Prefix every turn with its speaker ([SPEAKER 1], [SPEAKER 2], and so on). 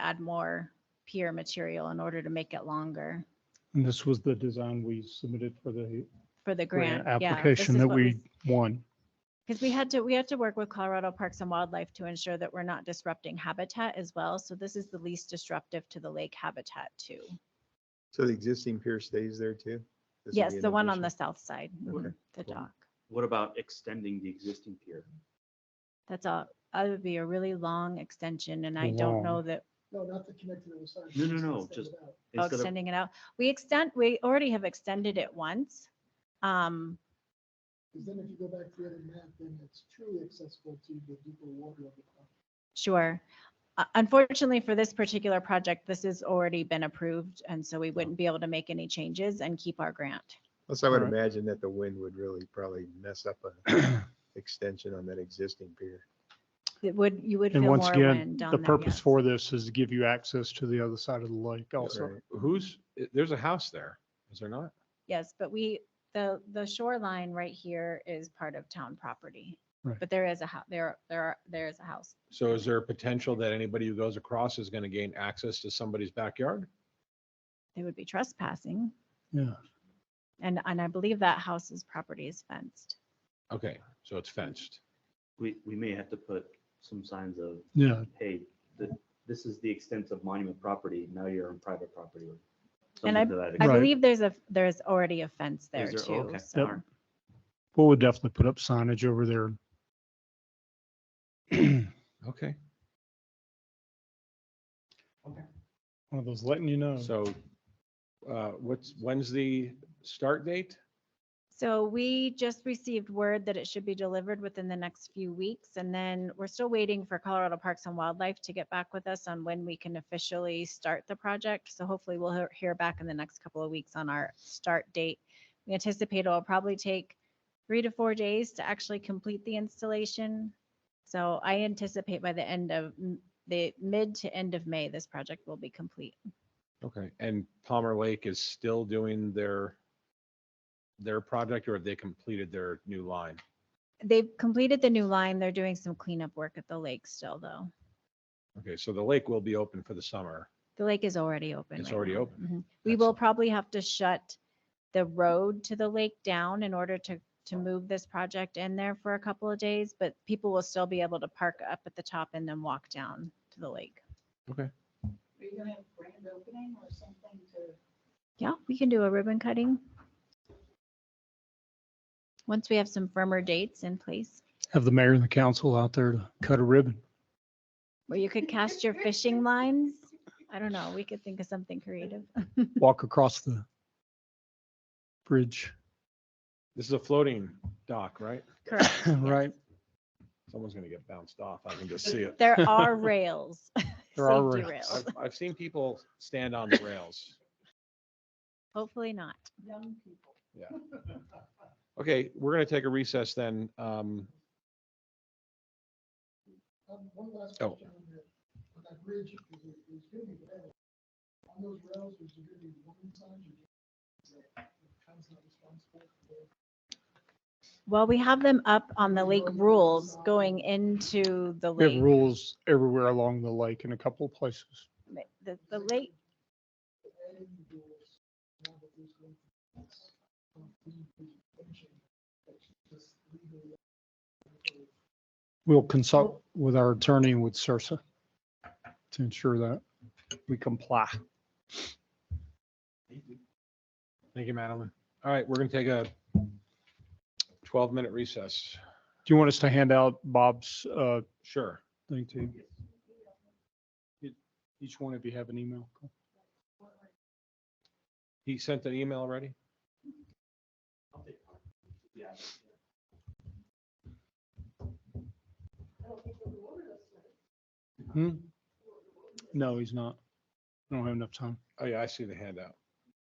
[SPEAKER 1] add more pier material in order to make it longer
[SPEAKER 2] And this was the design we submitted for the
[SPEAKER 1] for the grant.
[SPEAKER 2] grant Oh, application that we won.
[SPEAKER 1] Because we had to, we had to work with Colorado Parks and Wildlife to ensure that we're not disrupting habitat as well. So this is the least disruptive to the lake habitat too.
[SPEAKER 3] So the existing pier stays there too? This would
[SPEAKER 1] Yes,
[SPEAKER 3] be an
[SPEAKER 1] the one on the
[SPEAKER 3] addition.
[SPEAKER 1] south side,
[SPEAKER 3] Okay.
[SPEAKER 1] mhm, the
[SPEAKER 4] Cool.
[SPEAKER 1] dock.
[SPEAKER 4] What about extending the existing
[SPEAKER 1] Oh,
[SPEAKER 4] pier?
[SPEAKER 1] That's a, that would be a really long extension and I don't know
[SPEAKER 2] Long.
[SPEAKER 1] that
[SPEAKER 5] No, not to connect to the other side.
[SPEAKER 4] No, no, no,
[SPEAKER 5] extend
[SPEAKER 4] just-
[SPEAKER 5] it out.
[SPEAKER 1] oh,
[SPEAKER 4] Instead of,
[SPEAKER 1] extending it out. We extend, we already have extended it once. Um,
[SPEAKER 5] 'Cause then if you go back to the other map, then it's truly accessible to the deeper water of the property.
[SPEAKER 6] Oh,
[SPEAKER 1] Sure. Uh, Unfortunately, for this particular project, this has already been approved, and so
[SPEAKER 2] Oh.
[SPEAKER 1] we wouldn't be able to make any changes and keep our grant.
[SPEAKER 3] Plus, I would
[SPEAKER 2] Alright.
[SPEAKER 3] imagine that the wind would really probably mess up a extension on that existing pier.
[SPEAKER 1] It would, you would feel
[SPEAKER 2] And
[SPEAKER 1] more
[SPEAKER 2] once again,
[SPEAKER 1] wind on
[SPEAKER 2] the
[SPEAKER 1] that,
[SPEAKER 2] purpose
[SPEAKER 1] yes.
[SPEAKER 2] for this is to give you access to the other side of the lake also.
[SPEAKER 3] Right.
[SPEAKER 6] Who's, i- there's a house there, is there not?
[SPEAKER 1] Yes, but we, the, the shoreline right here is part of town property.
[SPEAKER 2] Right.
[SPEAKER 1] But there is a, hou- there, there, are there is a house.
[SPEAKER 6] So is there a potential that anybody who goes across is going to gain access to somebody's backyard?
[SPEAKER 1] They would be trespassing,
[SPEAKER 2] Yeah.
[SPEAKER 1] and, and I believe that house's property is fenced.
[SPEAKER 6] Okay, so it's fenced.
[SPEAKER 4] we, we may have to put some signs of,
[SPEAKER 2] Yeah.
[SPEAKER 4] hey, th- this is the extent of monument property, now you're on private property. or
[SPEAKER 1] And
[SPEAKER 4] something to that
[SPEAKER 1] I
[SPEAKER 2] Right.
[SPEAKER 4] extent.
[SPEAKER 1] believe there's a, there's already a fence there
[SPEAKER 4] there?
[SPEAKER 1] too,
[SPEAKER 4] Okay. Yep.
[SPEAKER 1] so.
[SPEAKER 2] Well, we'll definitely put up signage over there.
[SPEAKER 6] Okay,
[SPEAKER 2] One of those letting you know.
[SPEAKER 6] so uh, what's, when's the start date?
[SPEAKER 1] So we just received word that it should be delivered within the next few weeks. And then we're still waiting for Colorado Parks and Wildlife to get back with us on when we can officially start the project. So hopefully we'll hear- hear back in the next couple of weeks on our start date. We anticipate it'll probably take three to four days to actually complete the installation. So I anticipate by the end of m- the mid to end of May, this project will be complete.
[SPEAKER 6] Okay, and Palmer Lake is still doing their, their project or have they completed their new line?
[SPEAKER 1] They've completed the new line. They're doing some cleanup work at the lake still, though.
[SPEAKER 6] Okay, so the lake will be open for the summer.
[SPEAKER 1] The lake is already open.
[SPEAKER 6] It's
[SPEAKER 1] right
[SPEAKER 6] already
[SPEAKER 1] now.
[SPEAKER 6] open.
[SPEAKER 1] Mhm. We will
[SPEAKER 6] Excellent.
[SPEAKER 1] probably have to shut the road to the lake down in order to, to move this project in there for a couple of days, but people will still be able to park up at the top and then walk down to the lake.
[SPEAKER 7] Are you gonna have a grand opening or something to?
[SPEAKER 1] Yeah, we can do a ribbon cutting. Once we have some firmer dates in place,
[SPEAKER 2] Have the mayor and the council out there to cut a ribbon.
[SPEAKER 1] or you could cast your fishing lines. I don't know, we could think of something creative.
[SPEAKER 2] walk across the bridge,
[SPEAKER 6] This is a floating dock, right?
[SPEAKER 1] Correct.
[SPEAKER 2] right?
[SPEAKER 6] Someone's going to get bounced off. I can just see it.
[SPEAKER 1] There are rails.
[SPEAKER 2] There are
[SPEAKER 1] safety
[SPEAKER 2] rails.
[SPEAKER 6] I've, I've seen people stand on the rails.
[SPEAKER 1] Hopefully not.
[SPEAKER 7] Young people.
[SPEAKER 6] Okay, we're going to take a recess then. Um,
[SPEAKER 5] Um, One last
[SPEAKER 6] Oh.
[SPEAKER 5] question on that, on that bridge, is it- is gonna be rails. On those rails, is there gonna be warning signs or? is it- the town's not responsible for it?
[SPEAKER 1] Well, we have them up on the lake
[SPEAKER 5] Going to the
[SPEAKER 1] rules
[SPEAKER 5] side.
[SPEAKER 1] going into the
[SPEAKER 2] We have
[SPEAKER 1] lake.
[SPEAKER 2] rules everywhere along the lake in a couple of places.
[SPEAKER 1] Ma- The, the lake,
[SPEAKER 5] Adding rules, now that there's going to be this, um, free presentation, that's just legally-
[SPEAKER 2] We'll consult with our attorney and with Sarsa to ensure that we comply.
[SPEAKER 6] thank you, Madeline. All right, we're going to take a 12-minute recess.
[SPEAKER 2] Do you want us to hand out Bob's uh,
[SPEAKER 6] Sure.
[SPEAKER 2] thing to you? Each one of you have an email?
[SPEAKER 6] He sent an email already?
[SPEAKER 2] Hmm? No, he's not. I don't have enough time.
[SPEAKER 6] Oh, yeah, I see the handout.